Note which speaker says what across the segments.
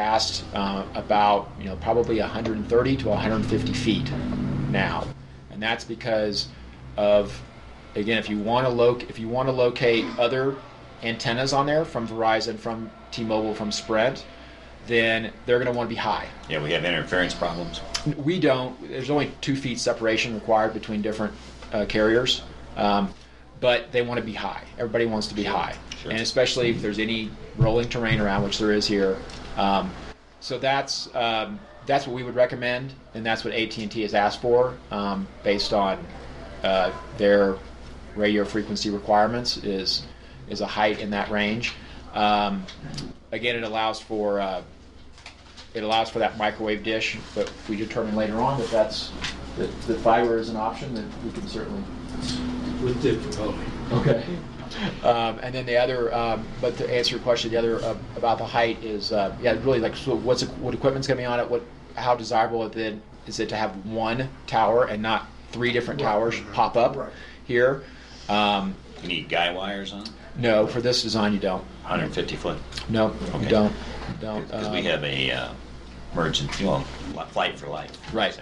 Speaker 1: last uh, about you know probably 130 to 150 feet now, and that's because of again if you want to loc if you want to locate other antennas on there from Verizon, from T-Mobile, from Sprint, then they're going to want to be high.
Speaker 2: Yeah, we have interference problems.
Speaker 1: We don't. There's only two feet separation required between different uh, carriers, um, but they want to be high. Everybody wants to be high,
Speaker 2: Sure.
Speaker 1: and especially if there's any rolling terrain around, which there is here. Um, so that's um, that's what we would recommend, and that's what AT&T has asked for um, based on uh, their radio frequency requirements. Is is a height in that range. Um, again, it allows for uh, it allows for that microwave dish, but we determine later on that that's, that, that fiber is an option, that we can certainly.
Speaker 3: with difficulty.
Speaker 1: Okay. Um, and then the other, um, but to answer your question, the other uh, about the height is, uh, yeah, really like, so what's, what equipment's gonna be on it, what, how desirable it then, is it to have one tower and not three different towers pop up
Speaker 4: Right.
Speaker 1: here? Um,
Speaker 2: You need guy wires on it?
Speaker 1: no, for this design, you don't.
Speaker 2: 150 foot.
Speaker 1: No,
Speaker 2: Okay.
Speaker 1: you don't, You don't.
Speaker 2: Because we
Speaker 1: um,
Speaker 2: have a uh, emergency, well, li- flight for light.
Speaker 1: Right.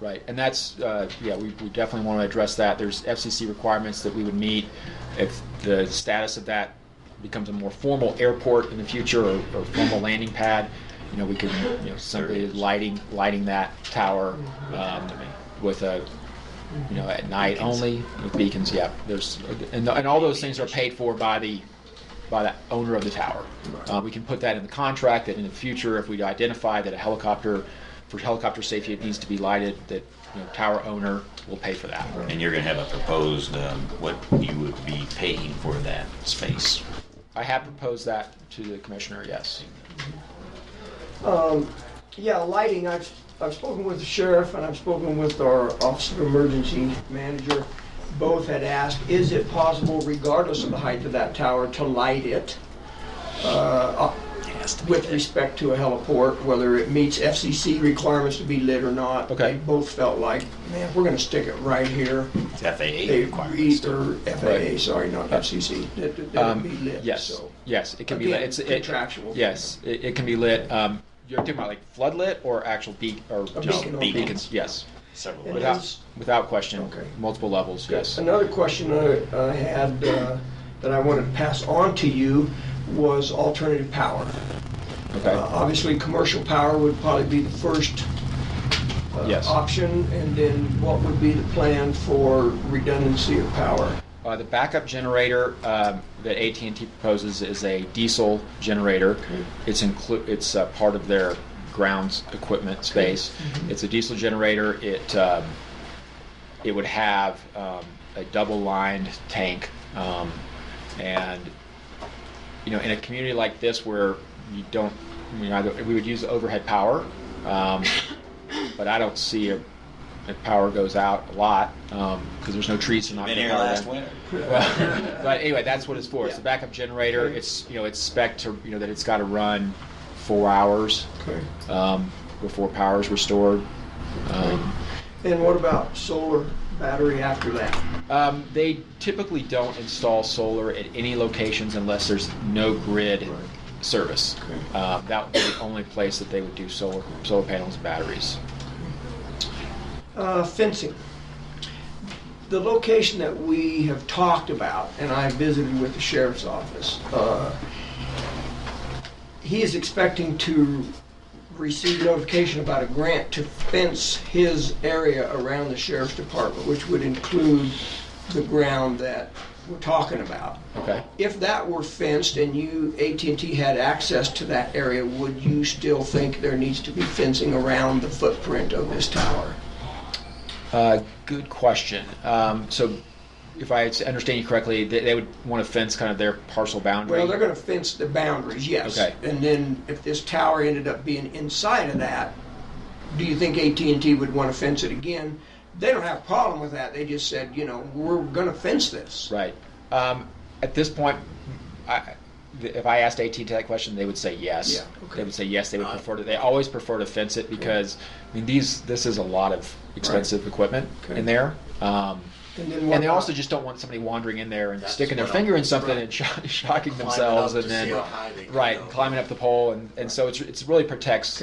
Speaker 1: Right, and that's, uh, yeah, we, we definitely want to address that. There's FCC requirements that we would meet if the status of that becomes a more formal airport in the future or, or formal landing pad. You know, we could, you know, simply lighting, lighting that tower um, with a, you know, at night
Speaker 2: Beacons.
Speaker 1: only, with beacons, yeah. There's, and, and all those things are paid for by the, by the owner of the tower. Uh, we can put that in the contract that in the future, if we identify that a helicopter, for helicopter safety, it needs to be lighted, that you know, tower owner will pay for that.
Speaker 2: And you're going to have a proposed, um, what you would be paying for that space.
Speaker 1: I have proposed that to the commissioner, yes.
Speaker 4: Um, yeah, lighting, I've, I've spoken with the sheriff and I've spoken with our Office of Emergency Manager. Both had asked, is it possible regardless of the height of that tower to light it? Uh, up with respect to a heliport, whether it meets FCC requirements to be lit or not.
Speaker 1: Okay.
Speaker 4: They both felt like, man, we're gonna stick it right here.
Speaker 2: It's FAA
Speaker 4: They
Speaker 2: requirements.
Speaker 4: agreed, or FAA,
Speaker 1: Right.
Speaker 4: sorry, not FCC, that that- that it be
Speaker 1: Um,
Speaker 4: lit,
Speaker 1: yes,
Speaker 4: so.
Speaker 1: yes, it can be
Speaker 4: Again,
Speaker 1: lit. It's it-
Speaker 4: contractual.
Speaker 1: Yes, it, it can be lit. Um, you're talking about like floodlit or actual beak or just
Speaker 4: beacon or-
Speaker 1: beacons? Yes,
Speaker 2: Several.
Speaker 4: And
Speaker 2: ways.
Speaker 1: without without question.
Speaker 4: Okay.
Speaker 1: Multiple levels. Yes.
Speaker 4: Another question I I had uh, that I wanted to pass on to you was alternative power.
Speaker 1: Okay.
Speaker 4: Uh, Obviously, commercial power would probably be the first uh,
Speaker 1: Yes.
Speaker 4: option, and then what would be the plan for redundancy of power?
Speaker 1: Uh, the backup generator um, that AT&T proposes is a diesel generator. It's inclu- It's uh, part of their grounds equipment space. It's a diesel generator. It um, it would have um, a double lined tank, um, and you know, in a community like this where you don't, you know, either, we would use overhead power, um, but I don't see a, if power goes out a lot because there's no trees to knock
Speaker 2: Been
Speaker 1: the
Speaker 2: here
Speaker 1: power
Speaker 2: last
Speaker 1: down.
Speaker 2: winter.
Speaker 1: Well, but anyway, that's what it's for. It's a backup generator. It's you know it's spec to you know that it's got to run four hours
Speaker 4: Okay.
Speaker 1: um, before power is restored. Um,
Speaker 4: And what about solar battery after that?
Speaker 1: um, they typically don't install solar at any locations unless there's no grid service. Uh, that would be the only place that they would do solar solar panels and batteries.
Speaker 4: Uh, Fencing. The location that we have talked about, and I visited with the sheriff's office, uh, he is expecting to receive notification about a grant to fence his area around the sheriff's department, which would include the ground that we're talking about.
Speaker 1: Okay.
Speaker 4: If that were fenced and you, AT&T had access to that area, would you still think there needs to be fencing around the footprint of this tower?
Speaker 1: Uh, Good question. Um, So if I understand you correctly, they they would want to fence kind of their parcel boundary?
Speaker 4: Well, they're gonna fence the boundaries, yes.
Speaker 1: Okay.
Speaker 4: And then if this tower ended up being inside of that, do you think AT&T would wanna fence it again? They don't have a problem with that, they just said, you know, we're gonna fence this.
Speaker 1: Right. Um, at this point, I, if I asked AT&T that question, they would say yes.
Speaker 4: Yeah, okay.
Speaker 1: They would say yes. They
Speaker 5: Uh,
Speaker 1: would prefer to. They always prefer to fence it because I mean these. This is a lot of expensive equipment
Speaker 4: Okay.
Speaker 1: in there. Um,
Speaker 4: And then
Speaker 1: And they
Speaker 4: what-
Speaker 1: also just don't want somebody wandering in there and
Speaker 5: That's
Speaker 1: sticking their
Speaker 5: what
Speaker 1: finger
Speaker 5: I'm-
Speaker 1: in something
Speaker 5: right.
Speaker 1: and shock shocking
Speaker 5: Climbing
Speaker 1: themselves
Speaker 5: up
Speaker 1: and
Speaker 5: to see
Speaker 1: then,
Speaker 5: how high they can
Speaker 1: right,
Speaker 5: go.
Speaker 1: climbing up the pole. And, and so it's, it's really protects